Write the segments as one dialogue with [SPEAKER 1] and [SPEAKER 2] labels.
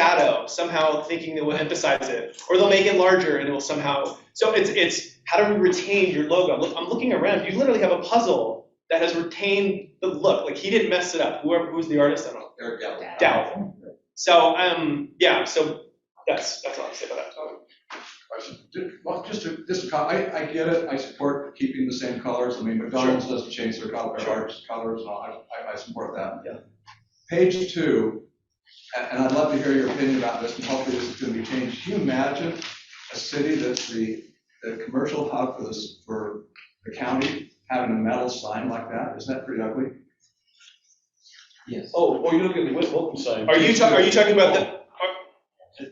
[SPEAKER 1] shadow, somehow thinking that will emphasize it, or they'll make it larger and it will somehow. So it's it's how do we retain your logo? Look, I'm looking around. You literally have a puzzle that has retained the look. Like he didn't mess it up. Whoever who's the artist, I don't know.
[SPEAKER 2] Eric Gallo.
[SPEAKER 1] Doubt. So um yeah. So that's that's all I have to say about that.
[SPEAKER 2] Question. Ju- Well, just to, just, co- I, I get it, I support keeping the same colors, I mean, McDonald's doesn't change their color, their arch colors, and all. I, I, I support that.
[SPEAKER 1] Yeah.
[SPEAKER 2] Page two, a- and, I'd love to hear your opinion about this, and hopefully this is gonna be changed, can you imagine a city that's the, the commercial hub for this, for the county, having a metal sign like that, isn't that pretty ugly?
[SPEAKER 3] Yes.
[SPEAKER 4] Oh, well, you're looking at the West Wilton sign.
[SPEAKER 1] Are you talking? Are you talking about the?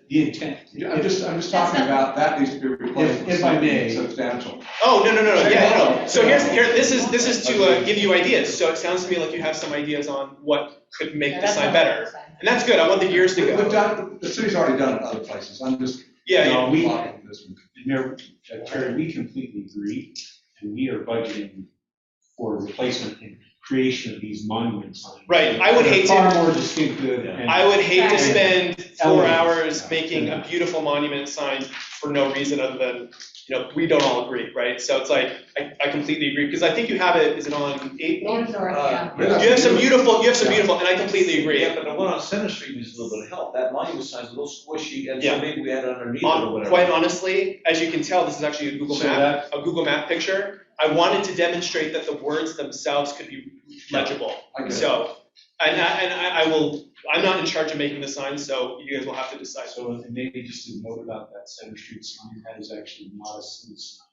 [SPEAKER 3] The intent.
[SPEAKER 2] Yeah, I'm just, I'm just
[SPEAKER 5] That's
[SPEAKER 2] talking about, that needs to be replaced
[SPEAKER 3] If-
[SPEAKER 2] with
[SPEAKER 3] if I may.
[SPEAKER 2] something substantial.
[SPEAKER 1] Oh, no, no, no, no, yeah, no, no.
[SPEAKER 2] Check it out.
[SPEAKER 1] So here's, here, this is, this is to, uh, give you ideas, so it sounds to me like you have some ideas on what could make the
[SPEAKER 5] That's
[SPEAKER 1] sign
[SPEAKER 5] not
[SPEAKER 1] better.
[SPEAKER 5] sign.
[SPEAKER 1] And that's good, I want the years to
[SPEAKER 2] We've
[SPEAKER 1] go.
[SPEAKER 2] done, the city's already done it other places, I'm just.
[SPEAKER 1] Yeah, yeah,
[SPEAKER 3] No, we-
[SPEAKER 2] blocking this one.
[SPEAKER 3] Mayor, uh, Terry, we completely agree, and we are budgeting for replacement and creation of these monument signs.
[SPEAKER 1] Right, I would hate to-
[SPEAKER 3] They're Far more distinctive and.
[SPEAKER 1] I would hate to
[SPEAKER 5] Right.
[SPEAKER 1] spend four
[SPEAKER 3] Elements.
[SPEAKER 1] hours making a beautiful monument sign for no reason other than, you know, we don't all agree, right? So it's like, I, I completely agree, because I think you have it, is it on eight
[SPEAKER 5] Yeah,
[SPEAKER 1] north?
[SPEAKER 5] sorry, yeah.
[SPEAKER 2] Uh,
[SPEAKER 1] You have some beautiful, you have some beautiful, and I completely agree.
[SPEAKER 4] Yeah, but the one on Center Street needs a little bit of help, that monument sign's a little squishy, and
[SPEAKER 1] Yeah.
[SPEAKER 4] so maybe we had it underneath it or
[SPEAKER 1] Hon- Quite
[SPEAKER 4] whatever.
[SPEAKER 1] honestly, as you can tell, this is actually a Google
[SPEAKER 3] So
[SPEAKER 1] map, a Google map picture. I wanted to demonstrate that the words themselves could be legible.
[SPEAKER 2] I get it.
[SPEAKER 1] So, and I, and I I will, I'm not in charge of making the signs, so you guys will have to decide.
[SPEAKER 3] So and maybe just a note about that Center Street sign, that is actually not a city sign.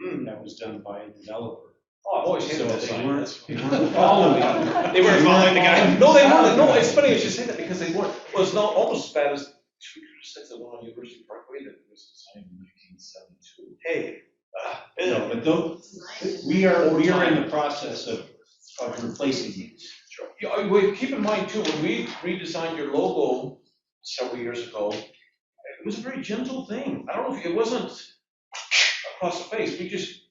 [SPEAKER 1] Hmm.
[SPEAKER 3] That was done by a developer.
[SPEAKER 4] Oh, I've always hated that
[SPEAKER 3] So
[SPEAKER 4] sign.
[SPEAKER 3] They
[SPEAKER 4] That's-
[SPEAKER 3] weren't, they weren't following it.
[SPEAKER 1] They weren't following the guy.
[SPEAKER 4] No, they weren't, no, it's funny you should say that, because they weren't, well, it's not almost as bad as, should we just set the one on University Parkway that was designed in nineteen seventy-two?
[SPEAKER 1] Hey.
[SPEAKER 3] No, but those, we are, we are in the process of, of replacing these.
[SPEAKER 4] Yeah, I- well, keep in mind too, when we redesigned your logo several years ago, it was a very gentle thing. I don't know if, it wasn't across the face, we just,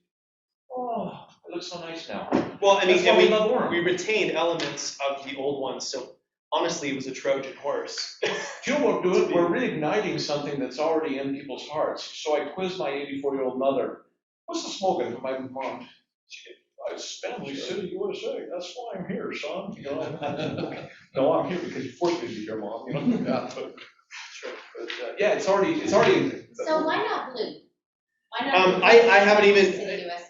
[SPEAKER 4] oh, it looks so nice now.
[SPEAKER 1] Well, I mean,
[SPEAKER 4] That's why
[SPEAKER 1] and
[SPEAKER 4] we
[SPEAKER 1] we,
[SPEAKER 4] love Orem.
[SPEAKER 1] we retained elements of the old ones, so honestly, it was a Trojan horse.
[SPEAKER 4] Do you know what we're doing? We're reigniting something that's already in people's hearts. So I quizzed my eighty-four-year-old mother, what's the slogan for my mom? She said, "Uh, It's Stanley City, USA, that's why I'm here, son, you know? No, I'm here because you forced me to be your mom, you know? Yeah, but- but, uh, Yeah, it's already, it's already. in-
[SPEAKER 5] So why not blue? Why not?
[SPEAKER 1] Um,
[SPEAKER 5] blue?
[SPEAKER 1] I, I haven't even,
[SPEAKER 5] City USA.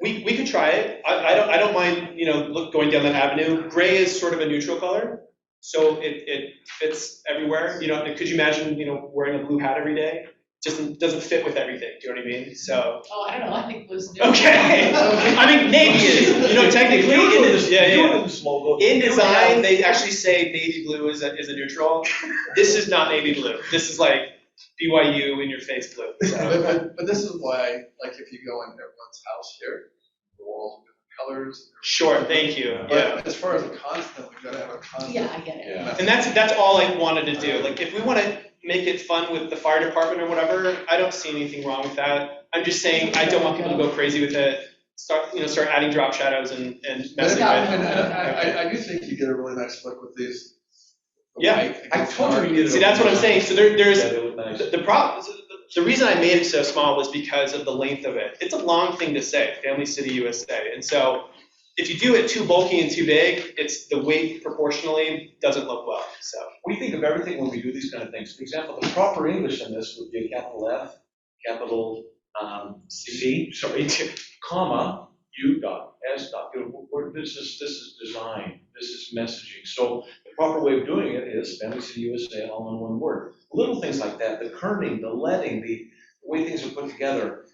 [SPEAKER 1] We, we could try it. I, I don't, I don't mind, you know, look, going down that avenue. Gray is sort of a neutral color, so it, it fits everywhere. You know, could you imagine, you know, wearing a blue hat every day? Just doesn't fit with everything, do you know what I mean? So,
[SPEAKER 5] Oh, I don't know, I think blue's new.
[SPEAKER 1] okay. I mean, navy is, you know, technically,
[SPEAKER 4] You're
[SPEAKER 1] in,
[SPEAKER 4] doing
[SPEAKER 1] this-
[SPEAKER 4] this-
[SPEAKER 1] yeah,
[SPEAKER 4] you're
[SPEAKER 1] yeah.
[SPEAKER 4] doing this logo.
[SPEAKER 1] In design, they actually say navy blue is a, is a neutral. This is not navy blue. This is like BYU in your face blue. So,
[SPEAKER 6] But, but, but this is why, like, if you go in everyone's house here, the walls are different colors.
[SPEAKER 1] Sure, thank you, yeah.
[SPEAKER 6] But as far as a constant, we've got to have a
[SPEAKER 5] Yeah,
[SPEAKER 6] constant.
[SPEAKER 5] I get it.
[SPEAKER 4] Yeah.
[SPEAKER 1] And that's, that's all I wanted to do, like, if we wanna make it fun with the fire department or whatever, I don't see anything wrong with that. I'm just saying, I don't want people to go crazy with it, start, you know, start adding drop shadows and, and
[SPEAKER 6] But
[SPEAKER 1] messing
[SPEAKER 6] I,
[SPEAKER 1] with
[SPEAKER 6] and uh, I, I, I do think you get a really nice look with these. the
[SPEAKER 1] Yeah,
[SPEAKER 6] white
[SPEAKER 4] I
[SPEAKER 6] against
[SPEAKER 4] told you
[SPEAKER 6] dark.
[SPEAKER 4] we needed
[SPEAKER 1] it. See, that's what I'm saying, so there, there's,
[SPEAKER 4] Yeah, they look nice.
[SPEAKER 1] the the problem, the reason I made it so small was because of the length of it. It's a long thing to say, Family City USA, and so if you do it too bulky and too big, it's, the weight proportionally doesn't look well, so.
[SPEAKER 4] we think of everything when we do these kind of things. For example, the proper English in this would be a capital F, capital, um, C, sorry, comma, U dot, S dot, you know, we're- this is, this is design, this is messaging. So the proper way of doing it is Family City USA all in one word. Little things like that, the kerning, the letting, the way things are put together.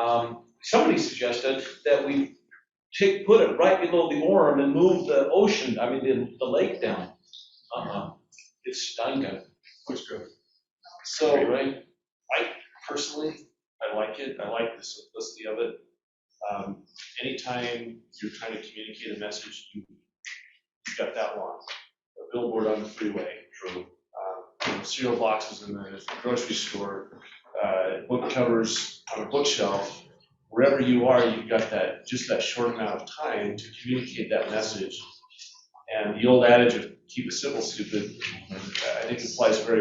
[SPEAKER 4] Um, somebody suggested that we take, put it right below the Orem and move the ocean, I mean, the, the lake down. Uh-huh. It's Stanga.
[SPEAKER 2] Looks good.
[SPEAKER 4] So, right, I personally, I like it, I like the simplicity of it.
[SPEAKER 3] Um, anytime you're trying to communicate a message, you, you've got that long. A billboard on the freeway, true. Um, you know, cereal boxes in the grocery store, uh, book covers on a bookshelf. Wherever you are, you've got that, just that short amount of time to communicate that message. And the old adage of keep it simple, stupid, I think applies very